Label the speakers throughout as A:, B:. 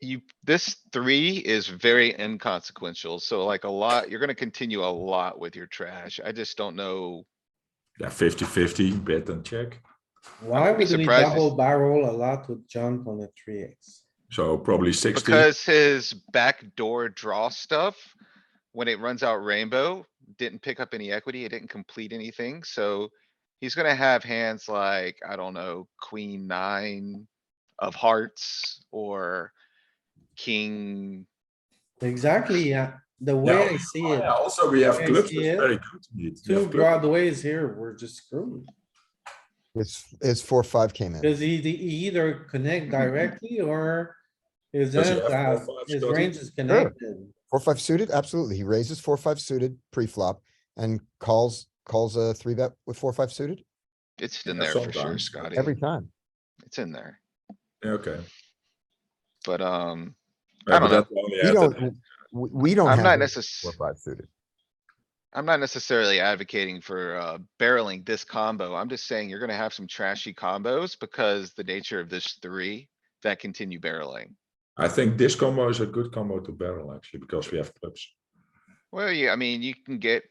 A: you, this three is very inconsequential, so like a lot, you're gonna continue a lot with your trash. I just don't know.
B: Yeah, 50-50, bet and check.
A: be
C: Why would we
A: surprised if-
C: double barrel a lot with junk on a three X?
B: So probably 60.
A: Because his backdoor draw stuff, when it runs out rainbow, didn't pick up any equity, it didn't complete anything, so. He's gonna have hands like, I don't know, queen nine of hearts or king.
C: Exactly, yeah. The way I see it,
B: Yeah, also we have
C: I
B: clubs.
C: see
B: That's
C: it.
B: very good. We have
C: two
B: clubs.
C: broadways here, we're just screwed.
D: It's, it's four, five came in.
C: Does he, he either connect directly or is
B: Mm-hmm. Does he
C: that,
B: have
C: uh,
B: four, five
C: his
B: Scotty?
C: range is connected?
D: Four, five suited, absolutely. He raises four, five suited pre-flop and calls, calls a three bet with four, five suited
A: It's in
B: Yeah,
A: there for sure,
B: sometimes.
A: Scotty.
D: every time.
A: It's in there,
B: Yeah, okay.
A: but, um,
B: Yeah,
A: I
B: but
A: don't know.
B: that only
D: We
B: happened-
D: don't, we, we don't
A: I'm not
D: have any
A: necess-
D: four, five suited.
A: I'm not necessarily advocating for, uh, barreling this combo. I'm just saying you're gonna have some trashy combos because the nature of this three that continue barreling.
B: I think this combo is a good combo to barrel actually because we have clubs.
A: Well, yeah, I mean, you can get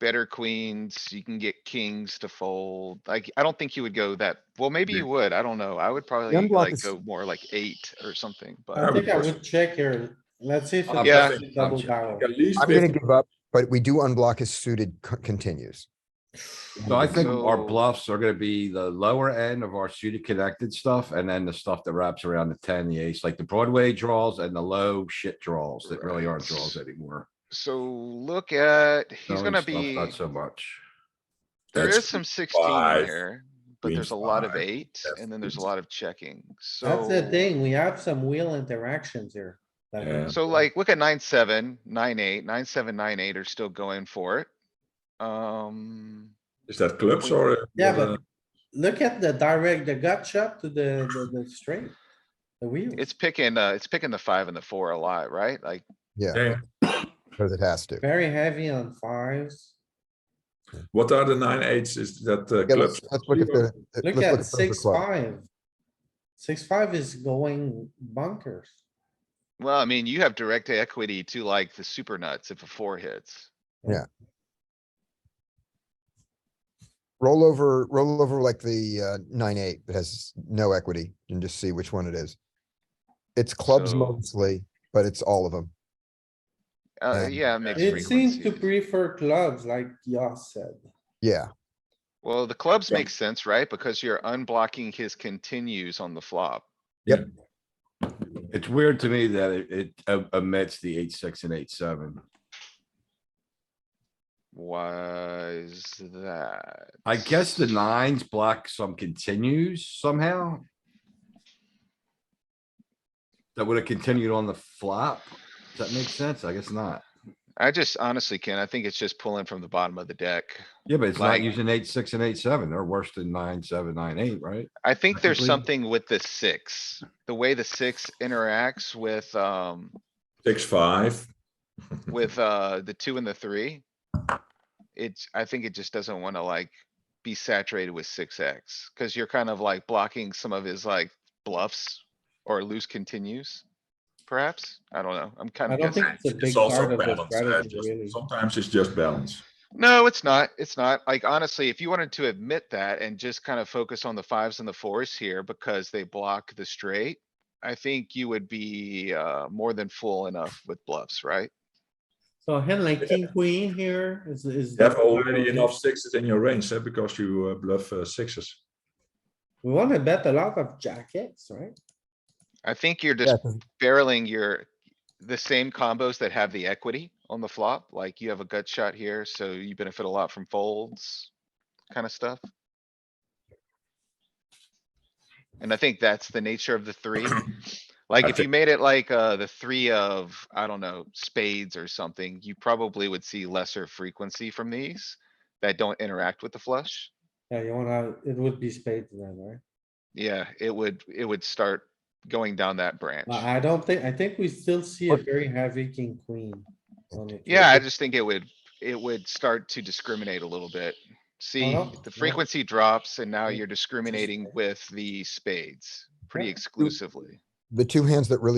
A: better queens, you can get kings to fold. Like, I don't think you would go that, well, maybe
B: Yeah.
A: you would. I don't know. I would probably
D: unblock
A: like
D: is-
A: go more like eight or something,
C: I
A: but
C: think I would check here. Let's see if
B: I'm
A: Yeah.
C: it's
B: checking, I'm
C: double
B: checking.
C: barrel.
B: At least
D: I'm gonna
B: 50.
D: give up, but we do unblock his suited co- continues.
E: So I think our
A: So-
E: bluffs are gonna be the lower end of our suited connected stuff and then the stuff that wraps around the ten, the ace, like the Broadway draws and the low shit draws that really aren't draws anymore.
A: so look at, he's
E: Knowing
A: gonna
E: stuff,
A: be,
E: Not so much.
A: there
B: That's
A: is some sixteen in
B: five,
A: here, but
B: queen
A: there's a lot of
B: five,
A: eight
B: that's
A: and then there's a
B: easy.
A: lot of checking, so.
C: That's the thing, we have some wheel interactions here. uh, that
B: Yeah.
C: we-
A: So like, look at nine, seven, nine, eight, nine, seven, nine, eight are still going for it. Um,
B: Is that clubs or? uh,
C: Yeah,
B: what,
C: but-
B: uh,
C: Look at the direct, the gut shot to the, the, the straight. The wheel.
A: it's picking, uh, it's picking the five and the four a lot, right? Like,
D: Yeah,
B: yeah.
D: because it has to.
C: Very heavy on fives.
B: What are the nine eights? Is that uh,
D: Yeah,
B: clubs?
D: let's, let's look at the. let's
C: Look
D: look
C: at
D: the
C: six,
D: club.
C: five. Six, five is going bunkers.
A: Well, I mean, you have direct equity to like the super nuts if a four hits.
D: Roll over, roll over like the, uh, nine, eight that has no equity and just see which one it is. It's clubs
A: So-
D: mostly, but it's all of them.
A: Uh,
D: Yeah.
A: yeah, mixed
C: It seems to
A: frequency.
C: prefer clubs like Yoss said.
D: Yeah,
A: Well, the clubs
B: Yeah.
A: make sense, right? Because you're unblocking his continues on the flop.
E: It's weird to me that it, it o- omits the eight, six and eight, seven.
A: Why is that?
E: I guess the nines block some continues somehow. That would have continued on the flop. Does that make sense? I guess not.
A: I just honestly can, I think it's just pulling from the bottom of the deck.
E: Yeah, but it's
A: Like-
E: not using eight, six and eight, seven. They're worse than nine, seven, nine, eight, right?
A: I think there's
E: Technically.
A: something with the six, the way the six interacts with, um,
B: Six, five.
C: Mm-hmm.
A: with, uh, the two and the three. It's, I think it just doesn't wanna like be saturated with six X, cuz you're kind of like blocking some of his like bluffs or loose continues. Perhaps, I don't know, I'm
C: I
A: kinda
C: don't think
A: guessing.
C: it's a big
B: It's
C: part
B: also
C: of the
B: balance. uh,
C: strategy,
B: just-
C: really.
B: Sometimes it's just balance.
A: No, it's not, it's not, like honestly, if you wanted to admit that and just kind of focus on the fives and the fours here because they block the straight. I think you would be, uh, more than full enough with bluffs, right?
C: So hand like king, queen here is, is.
B: You have already enough sixes in your range eh, because you uh, bluff uh, sixes.
C: We wanna bet a lot of jackets, right?
A: I think you're just
D: yeah, 'cause
A: barreling your, the same combos that have the equity on the flop, like you have a gut shot here, so you benefit a lot from folds, kinda stuff. And I think that's the nature of the three. Like,
B: I
A: if you
B: thi-
A: made it like, uh, the three of, I don't know, spades or something, you probably would see lesser frequency from these that don't interact with the flush.
C: Yeah, you wanna, it would be spades then, right?
A: Yeah, it would, it would start going down that branch.
C: But I don't think, I think we still see a very heavy king, queen. on it.
A: Yeah, I just think it would, it would start to discriminate a little bit. See,
C: no, Oh, yeah.
A: the frequency drops and now
C: Yeah,
A: you're discriminating with the spades pretty
C: Yeah.
A: exclusively.
D: The two hands that really